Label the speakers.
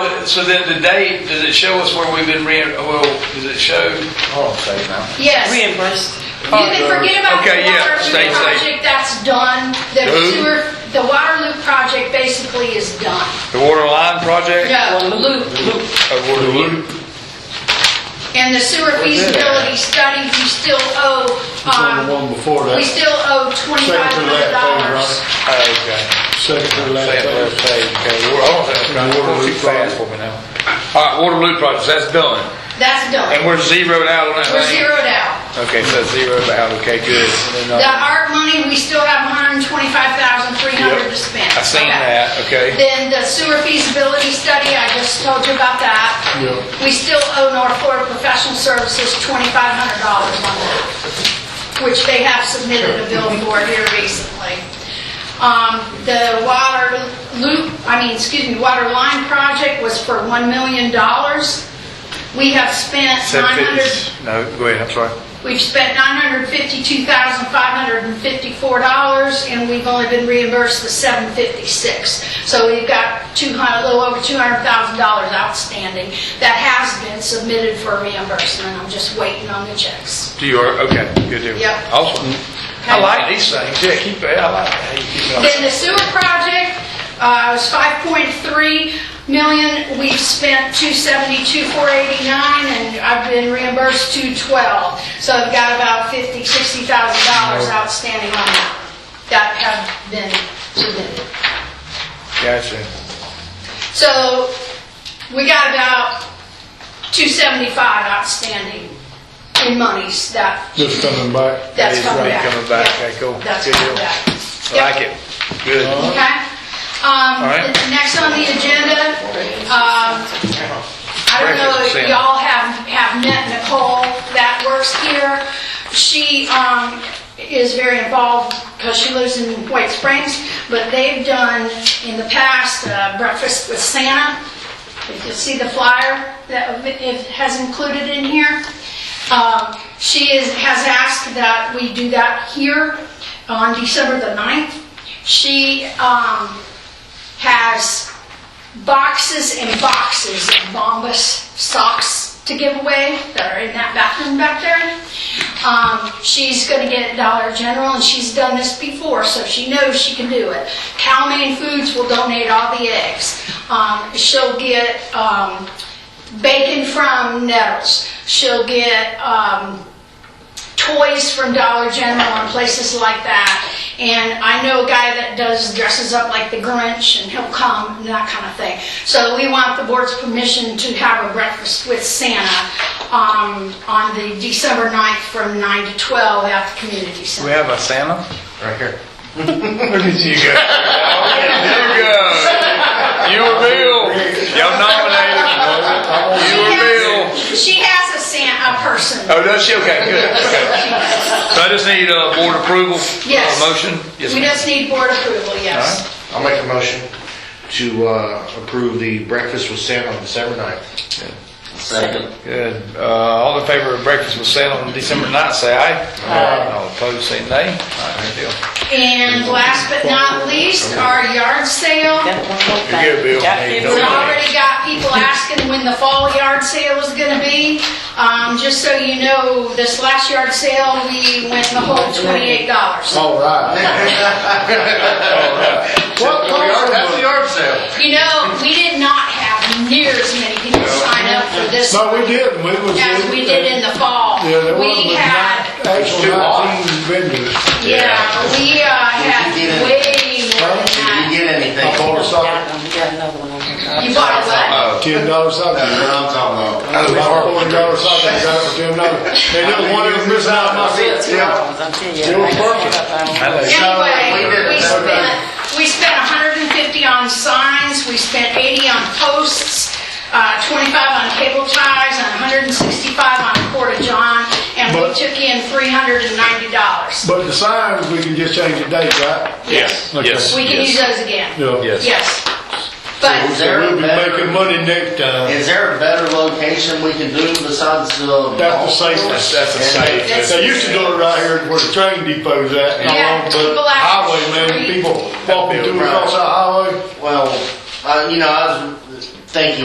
Speaker 1: so then the date, does it show us where we've been re, well, does it show?
Speaker 2: Hold on a second now.
Speaker 3: Yes. You
Speaker 4: reimbursed.
Speaker 3: can forget about the
Speaker 1: Okay, yeah, stay
Speaker 3: Waterloo
Speaker 1: safe.
Speaker 3: project, that's done. The
Speaker 1: Who?
Speaker 3: sewer, the Waterloo project basically is done.
Speaker 1: The water line project?
Speaker 3: No,
Speaker 1: Uh, water loop?
Speaker 3: and the sewer feasibility study, we still owe,
Speaker 5: on the
Speaker 3: um,
Speaker 5: one before
Speaker 3: we
Speaker 5: that,
Speaker 3: still owe twenty-five
Speaker 5: Second to
Speaker 3: hundred
Speaker 5: that page,
Speaker 3: dollars.
Speaker 5: right?
Speaker 1: Oh, okay.
Speaker 5: second to the last
Speaker 1: Say it,
Speaker 5: page.
Speaker 1: let's say, okay, we're, hold on a second, I'm trying to go too fast for me now. All right, water loop project, that's done,
Speaker 3: That's
Speaker 1: and
Speaker 3: done.
Speaker 1: we're zeroed out on that
Speaker 3: We're
Speaker 1: thing?
Speaker 3: zeroed out.
Speaker 1: Okay, so zeroed out, okay, good. And then,
Speaker 3: The
Speaker 1: uh,
Speaker 3: art money, we still have one hundred and twenty-five thousand, three hundred to spend.
Speaker 1: I seen
Speaker 3: Okay.
Speaker 1: that, okay,
Speaker 3: Then the sewer feasibility study, I just told you about that.
Speaker 5: Yeah.
Speaker 3: We still owe North Florida Professional Services $2,500 on that, which they have submitted a bill for here recently. Um, The water loop, I mean, excuse me, water line project was for $1 million. We have spent 900...
Speaker 1: seven fifty, no, go ahead, I'm sorry.
Speaker 3: We've spent $952,554, and we've only been reimbursed the $756. So we've got 200, a little over $200,000 outstanding that has been submitted for reimbursement. I'm just waiting on the checks.
Speaker 1: Do you, are- okay, good deal.
Speaker 3: Yep.
Speaker 1: Awesome. I like these things, yeah, keep, it. I like how you keep it on.
Speaker 3: Then the sewer project uh, was 5.3 million. We've spent 272,489, and I've been reimbursed 212. So I've got about 50, 60 thousand dollars outstanding on that that have been submitted.
Speaker 1: Gotcha.
Speaker 3: So we got about 275 outstanding in monies that,
Speaker 5: Just coming back.
Speaker 1: It's
Speaker 3: that's coming back.
Speaker 1: coming back. Okay,
Speaker 3: Yeah,
Speaker 1: cool.
Speaker 3: That's
Speaker 1: Good
Speaker 3: coming
Speaker 1: deal.
Speaker 3: back.
Speaker 1: I
Speaker 3: Yep.
Speaker 1: like it, good.
Speaker 3: Okay? Um,
Speaker 1: All right.
Speaker 3: the- Next on the agenda, um, I don't know if
Speaker 1: Sam.
Speaker 3: y'all have, have met Nicole that works here. She um, is very involved because she lives in White Springs, but they've done in the past uh, Breakfast with Santa. If you see the flyer that it has included in here. Um, She is, has asked that we do that here on December the 9th. She um, has boxes and boxes of Bombas socks to give away that are in that bathroom back there. Um, she's going to get Dollar General, and she's done this before, so she knows she can do it. Cowman Foods will donate all the eggs. Um, she'll get um, bacon from Nettles. She'll get um, toys from Dollar General and places like that. And I know a guy that does dresses up like the Grinch and he'll come and that kind of thing. So we want the board's permission to have a breakfast with Santa um, on the December 9th from 9 to 12 at the community
Speaker 1: We
Speaker 3: center.
Speaker 1: have a Santa? Right here. Look at you go. You go. You were real. Y'all nominated. You
Speaker 3: She
Speaker 1: were real.
Speaker 3: has- She has a Santa, a person.
Speaker 1: Oh, does she? Okay, good, okay. So I just need, uh, board approval?
Speaker 3: Yes.
Speaker 1: Uh, Motion? Yes,
Speaker 3: We
Speaker 1: ma'am.
Speaker 3: just need board approval, yes.
Speaker 6: I'll make a motion to uh, approve the breakfast with Santa on December 9th.
Speaker 2: Second.
Speaker 1: Good. Uh, all in favor of breakfast with Santa on December ninth, say aye. Aye. All opposed, say nay. All right, good deal.
Speaker 3: And last but not least, our yard sale.
Speaker 4: Got one more thing.
Speaker 1: You're good, Bill.
Speaker 4: Got
Speaker 1: Hey, don't
Speaker 3: We
Speaker 4: fifty
Speaker 1: worry.
Speaker 4: dollars.
Speaker 3: already got people asking when the fall yard sale is gonna be. Um, just so you know, this last yard sale, we went the whole twenty-eight dollars.
Speaker 5: All
Speaker 1: Oh,
Speaker 5: right.
Speaker 6: What, that's the yard sale.
Speaker 3: You know, we did not have near as many people sign up for this
Speaker 5: No, we didn't, we was.
Speaker 3: as we did in the fall.
Speaker 5: Yeah, there was,
Speaker 3: We
Speaker 5: but
Speaker 3: had,
Speaker 5: not- actually
Speaker 6: Too long.
Speaker 5: nineteen vendors.
Speaker 3: yeah, we, uh, had
Speaker 2: Did you get it?
Speaker 3: way more than
Speaker 2: Did you
Speaker 3: that.
Speaker 2: get
Speaker 5: I
Speaker 2: anything?
Speaker 5: bought a socket,
Speaker 4: Got one, we got another one on here.
Speaker 3: You bought a
Speaker 2: Uh,
Speaker 1: Oh.
Speaker 3: what?
Speaker 5: ten dollar socket.
Speaker 2: That's what I'm talking about.
Speaker 5: I bought a forty dollar socket, I got it for ten dollars. They didn't want to miss out on my
Speaker 4: See, it's
Speaker 5: bid.
Speaker 4: two ones, I'm telling you.
Speaker 5: They were perfect.
Speaker 3: Anyway, we
Speaker 2: We did it.
Speaker 3: spent, we spent 150 on signs, we spent 80 on posts, uh, 25 on cable ties, and 165 on Porta John, and we
Speaker 5: But-
Speaker 3: took in $390.
Speaker 5: But the signs, we can just change the date, right?
Speaker 1: Yes,
Speaker 5: Okay.
Speaker 1: yes.
Speaker 3: We can
Speaker 1: yes.
Speaker 3: use those again.
Speaker 5: Yeah.
Speaker 1: Yes.
Speaker 3: Yes. But,
Speaker 2: Is there
Speaker 5: So
Speaker 2: a
Speaker 5: we'll be
Speaker 2: better-
Speaker 5: making money next time.
Speaker 2: Is there a better location we can do besides the?
Speaker 5: That's the
Speaker 1: That's,
Speaker 5: safest.
Speaker 1: that's a safe.
Speaker 3: That's-
Speaker 5: They used to do it right here where the train depot's at,
Speaker 3: Yeah,
Speaker 5: along the
Speaker 3: people out
Speaker 5: highway,
Speaker 3: the
Speaker 5: man,
Speaker 3: street.
Speaker 5: people walking through across the highway.
Speaker 2: Well, uh, you know, I was thinking